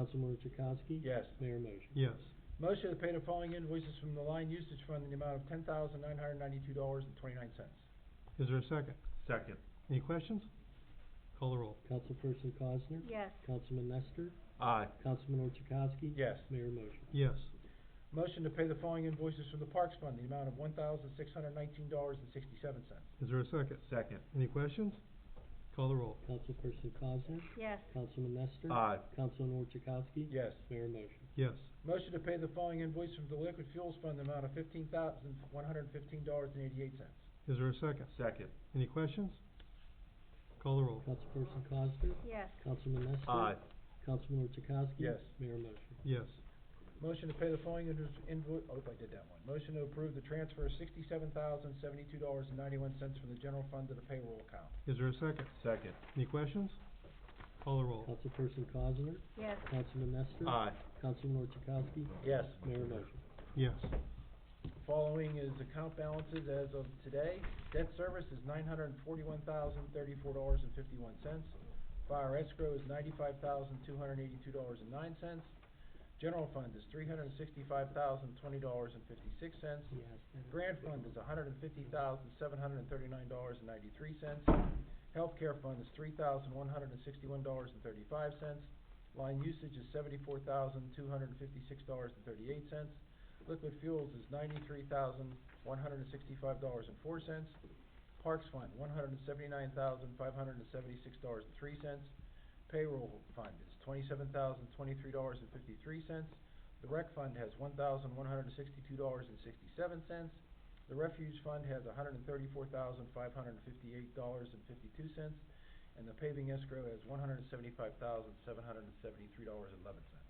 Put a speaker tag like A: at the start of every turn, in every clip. A: Councilor Chakowski?
B: Yes.
A: Mayor motion?
C: Yes.
B: Motion to pay the following invoices from the line usage fund in the amount of ten thousand nine hundred ninety-two dollars and twenty-nine cents.
C: Is there a second?
D: Second.
C: Any questions? Call the roll.
A: Councilperson Cosner?
E: yes,
A: Councilman Nestor?
D: Aye.
A: Councilor Chakowski?
B: Yes.
A: Mayor motion?
C: Yes.
B: Motion to pay the following invoices from the Parks Fund, in the amount of one thousand six hundred nineteen dollars and sixty-seven cents.
C: Is there a second?
D: Second.
C: Any questions? Call the roll.
A: Councilperson Cosner?
E: yes,
A: Councilman Nestor?
D: Aye.
A: Councilor Chakowski?
B: Yes.
A: Mayor motion?
C: Yes.
B: Motion to pay the following invoice from the Liquid Fuels Fund, in the amount of fifteen thousand one hundred fifteen dollars and eighty-eight cents.
C: Is there a second?
D: Second.
C: Any questions? Call the roll.
A: Councilperson Cosner?
E: yes,
A: Councilman Nestor?
D: Aye.
A: Councilor Chakowski?
B: Yes.
A: Mayor motion?
C: Yes.
B: Motion to pay the following invoice, oh, I did that one. Motion to approve the transfer of sixty-seven thousand seventy-two dollars and ninety-one cents from the general fund to the payroll account.
C: Is there a second?
D: Second.
C: Any questions? Call the roll.
A: Councilperson Cosner?
E: yes,
A: Councilman Nestor?
D: Aye.
A: Councilor Chakowski?
B: Yes.
A: Mayor motion?
C: Yes.
B: Following is account balances as of today. Debt service is nine hundred and forty-one thousand thirty-four dollars and fifty-one cents. Fire escrow is ninety-five thousand two hundred and eighty-two dollars and nine cents. General fund is three hundred and sixty-five thousand twenty dollars and fifty-six cents. Grant fund is hundred and fifty thousand, seven hundred and thirty-nine dollars and ninety-three cents. Healthcare fund is three thousand, one hundred and sixty-one dollars and thirty-five cents. Line usage is seventy-four thousand, two hundred and fifty-six dollars and thirty-eight cents. Liquid fuels is ninety-three thousand, one hundred and sixty-five dollars and four cents. Parks fund, one hundred and seventy-nine thousand, five hundred and seventy-six dollars and three cents. Payroll fund is twenty-seven thousand, twenty-three dollars and fifty-three cents. The rec fund has one thousand one hundred and sixty-two dollars and sixty-seven cents. The refuge fund has hundred and thirty-four thousand five hundred and fifty-eight dollars and fifty-two cents. And the paving escrow has one hundred and seventy-five thousand seven hundred and seventy-three dollars and eleven cents.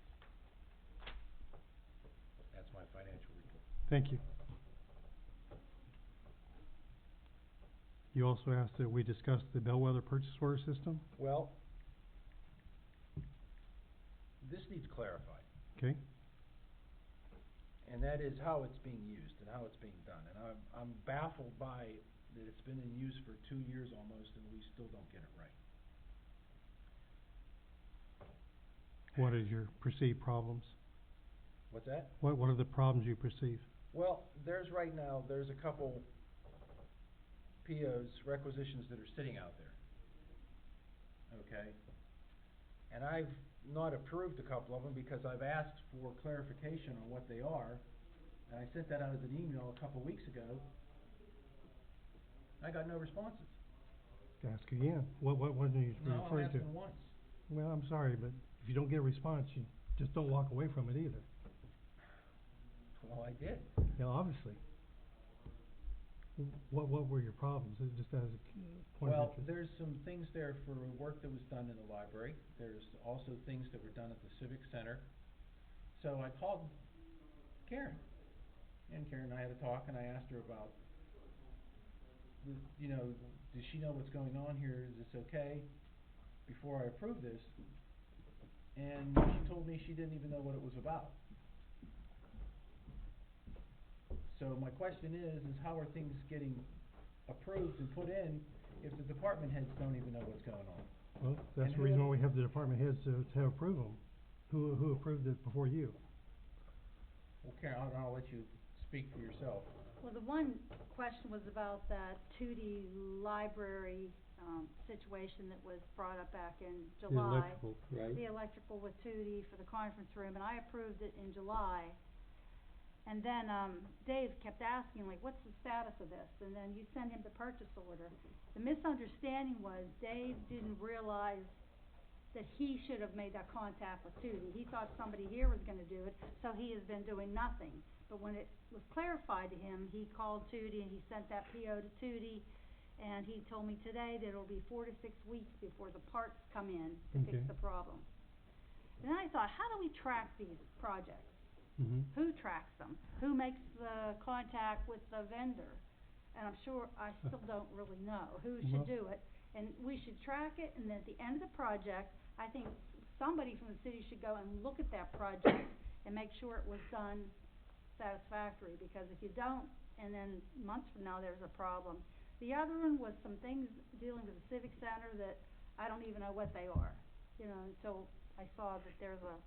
B: That's my financial report.
C: Thank you. You also asked that we discuss the bellwether purchase order system.
B: Well, this needs clarified.
C: Okay.
B: and that is how it's being used and how it's being done. And I'm, I'm baffled by that it's been in use for two years almost and we still don't get it right.
C: What is your perceived problems?
B: What's that?
C: What, what are the problems you perceive?
B: Well, there's right now, there's a couple POs, requisitions that are sitting out there. Okay? And I've not approved a couple of them because I've asked for clarification on what they are. And I sent that out as an email a couple weeks ago. I got no responses.
C: Ask again. What, what, what are you
B: No, I'm
C: referring to?
B: asking once.
C: Well, I'm sorry, but if you don't get a response, you just don't walk away from it either.
B: Well, I did.
C: Now, obviously. What, what were your problems? It just as a point of
B: Well,
C: interest.
B: there's some things there for work that was done in the library. There's also things that were done at the civic center. So I called Karen. And Karen and I had a talk and I asked her about, the- you know, does she know what's going on here? Is this okay? Before I approve this. And she told me she didn't even know what it was about. So my question is, is how are things getting approved and put in if the department heads don't even know what's going on?
C: Well,
B: and
C: that's the
B: who-
C: reason why we have the department heads to, to approve them. Who, who approved it before you?
B: Well, Karen, I'll, I'll let you speak for yourself.
E: well, the one question was about that two D library, um, situation that was brought up back in
C: The
E: July.
C: electrical.
A: Right?
E: the electrical with Tootie for the conference room, and I approved it in July. And then, um, Dave kept asking, like, what's the status of this? And then you send him the purchase order. The misunderstanding was Dave didn't realize that he should have made that contact with Tootie. He thought somebody here was gonna do it, so he has been doing nothing. But when it was clarified to him, he called Tootie and he sent that PO to Tootie, and he told me today that it'll be four to six weeks before the parts come in to fix
C: Okay.
E: the problem. And then I thought, how do we track these projects?
C: Mm-hmm.
E: Who tracks them? Who makes the contact with the vendor? And I'm sure, I still don't really know who
C: Well-
E: should do it. And we should track it, and at the end of the project, I think somebody from the city should go and look at that project and make sure it was done satisfactory, because if you don't, and then months from now, there's a problem. The other one was some things dealing with the civic center that I don't even know what they are, you know, until I saw that there's a